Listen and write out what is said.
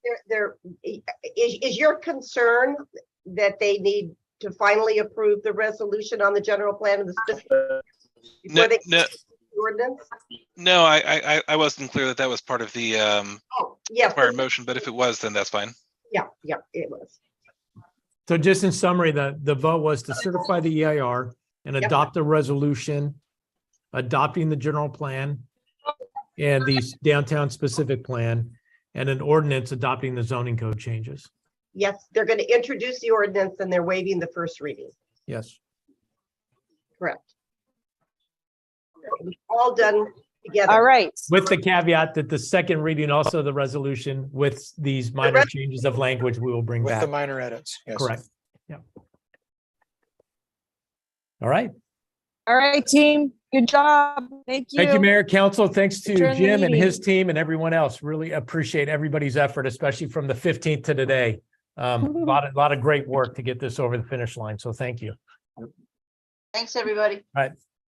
there, is, is your concern that they need to finally approve the resolution on the general plan of the system? before No, they no, Ordinance? no, I, I, I- I wasn't clear that that was part of the, um, Oh, yes, prior motion, but if it was, then that's fine. yeah, yeah, it was. So just in summary, the, the vote was to certify the EIR and Yep. adopt a resolution adopting the general plan and the downtown specific plan and an ordinance adopting the zoning code changes. Yes, they're going to introduce the ordinance and they're waiving the first reading, Yes. correct? All done All together. right, With the caveat that the second reading, also the resolution with these minor changes of language we will bring With the back. minor edits. yes. Correct. Yeah. All right. all right, team. Good job. Thank you. Thank you, Mayor, Council. Thanks to Adjourn the Jim and his meeting. team and everyone else. Really appreciate everybody's effort, especially from the fifteenth to today. Um, a lot, a lot of great work to get this over the finish line. So thank you. Thanks, everybody. All right.